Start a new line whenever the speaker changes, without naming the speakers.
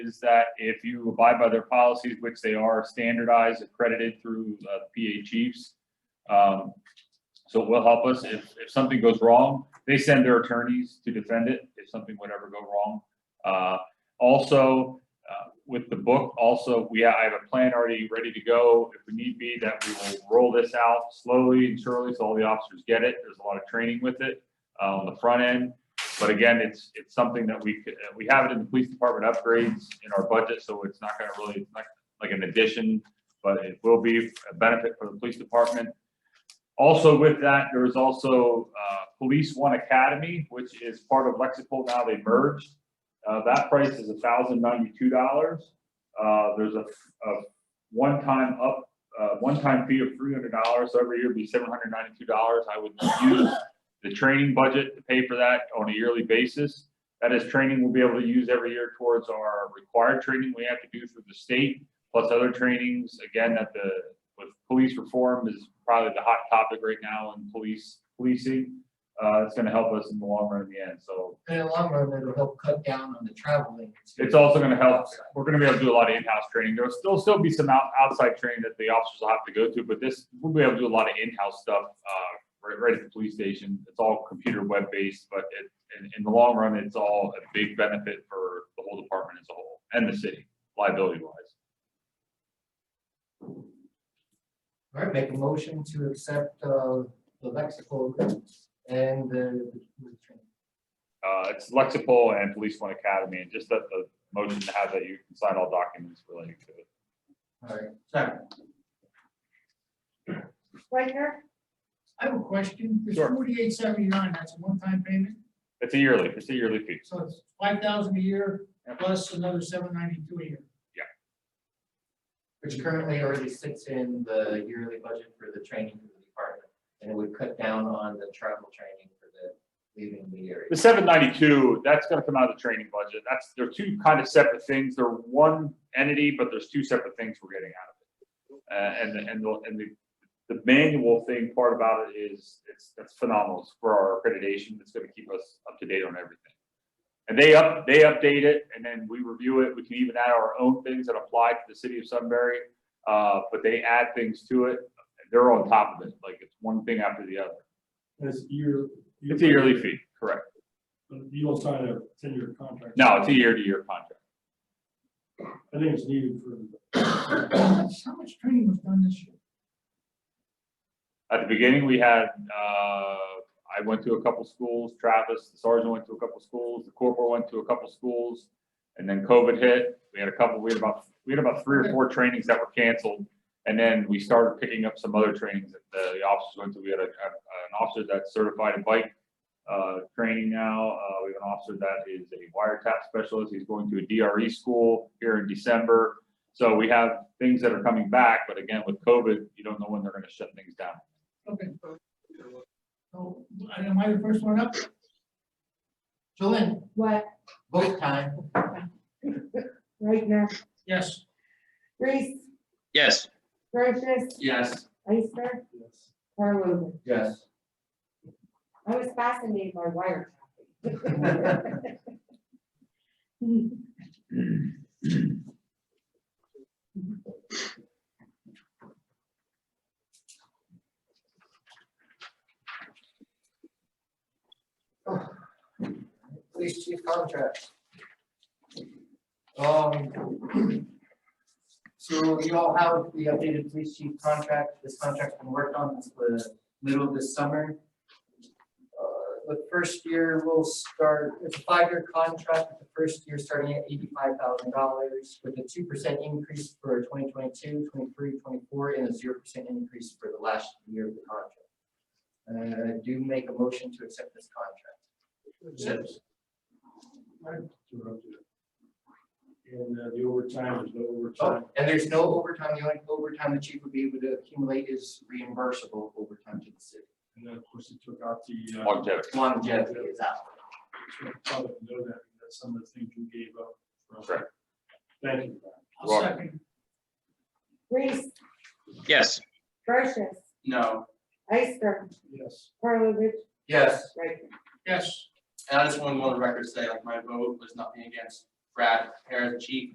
is that if you abide by their policies, which they are standardized, accredited through uh, PA chiefs, um, so it will help us. If, if something goes wrong, they send their attorneys to defend it if something would ever go wrong. Uh, also, uh, with the book, also, we, I have a plan already ready to go if we need be, that we will roll this out slowly and surely so all the officers get it. There's a lot of training with it, uh, on the front end. But again, it's, it's something that we, could- uh, we have it in the police department upgrades in our budget, so it's not gonna really, it's not like an addition, but it will be a benefit for the police department. Also with that, there is also, uh, Police One Academy, which is part of Lexipol now, they merged. Uh, that price is thousand ninety-two dollars. Uh, there's a, a one-time up, uh, one-time fee of three hundred dollars. Every year it'd be seven hundred ninety-two dollars. I would use the training budget to pay for that on a yearly basis. That is training we'll be able to use every year towards our required training we have to do through the state, plus other trainings, again, that the, with police reform is probably the hot topic right now in police, policing. Uh, it's gonna help us in the long run in the end, so
In the long run, it'll help cut down on the traveling.
it's also gonna help, we're gonna be able to do a lot of in-house training, there'll still, still be some out, outside training that the officers will have to go to, but this, we'll be able to do a lot of in-house stuff, uh, right, right at the police station, it's all computer web-based, but it, in, in the long run, it's all a big benefit for the whole department as a whole, and the city, liability-wise.
All right, make a motion to accept, uh, the lexical and the.
Uh, it's Lexipol and Police One Academy, and just that the motion to have that you can sign all documents relating to it.
All right, sorry.
Rechner,
I have a question. This
Sure.
forty-eight seventy-nine, that's a one-time payment,
It's a yearly, it's a yearly fee,
so it's five thousand a year
Yep.
plus another seven ninety-two a year.
Which currently already sits in the yearly budget for the training for the department, and it would cut down on the travel training for the leaving the area.
The seven ninety-two, that's gonna come out of the training budget. That's, they're two kind of separate things. They're one entity, but there's two separate things we're getting out of it. Uh, and, and, the- and the, the manual thing part about it is, it's, that's phenomenal It's for our accreditation. It's gonna keep us up to date on everything. And they up, they update it and then we review it. We can even add our own things that apply to the city of Sunbury. Uh, but they add things to it. They're on top of it. Like it's one thing after the other.
As year.
It's a yearly fee, correct?
You don't sign a ten-year contract.
No, it's a year-to-year contract.
I think it's needed for.
How much- how much training was done this year?
At the beginning, we had, uh, I went to a couple schools, Travis, the sergeant went to a couple schools, the corporal went to a couple schools. And then COVID hit, we had a couple, we had about, we had about three or four trainings that were canceled. And then we started picking up some other trainings that the the officers went to. We had a, a- an officer that's certified in bike, uh, training now. Uh, we have an officer that is a wiretap specialist. He's going to a DRE school here in December. So we have things that are coming back, but again, with COVID, you don't know when they're gonna shut things down.
Okay. So, am Oh, I the first one up?
Jolene,
what?
vote time.
Rechner,
Yes.
Reese,
Yes,
Brochus,
Yes.
Ister, Karlovic.
Yes.
I was fascinated by wiretapping.
Police chief contract. Um. So you all have the updated police chief contract, this contract's been worked on since the middle of this summer. Uh, The first year will start, it's a five-year contract, with the first year starting at eighty-five thousand dollars with a two percent increase for 2022, 23, 24, and a zero percent increase for the last year of the contract. Uh, do make a motion to accept this contract.
And uh, the overtime, there's no overtime.
Oh, and there's no overtime, the only overtime the chief would be able to accumulate is reimbursable overtime to the city.
And then, of course, it took out the. uh,
Longevity.
Longevity is out.
so you Probably know that, that's some of the things you gave up. from-
Correct.
Thank you.
I'll second.
Reese,
yes,
Brochus,
No.
Ister,
Yes.
Karlovic,
Yes,
Rechner.
Yes.
and I just want to on the record say, like, my vote was nothing against Brad Harris, chief,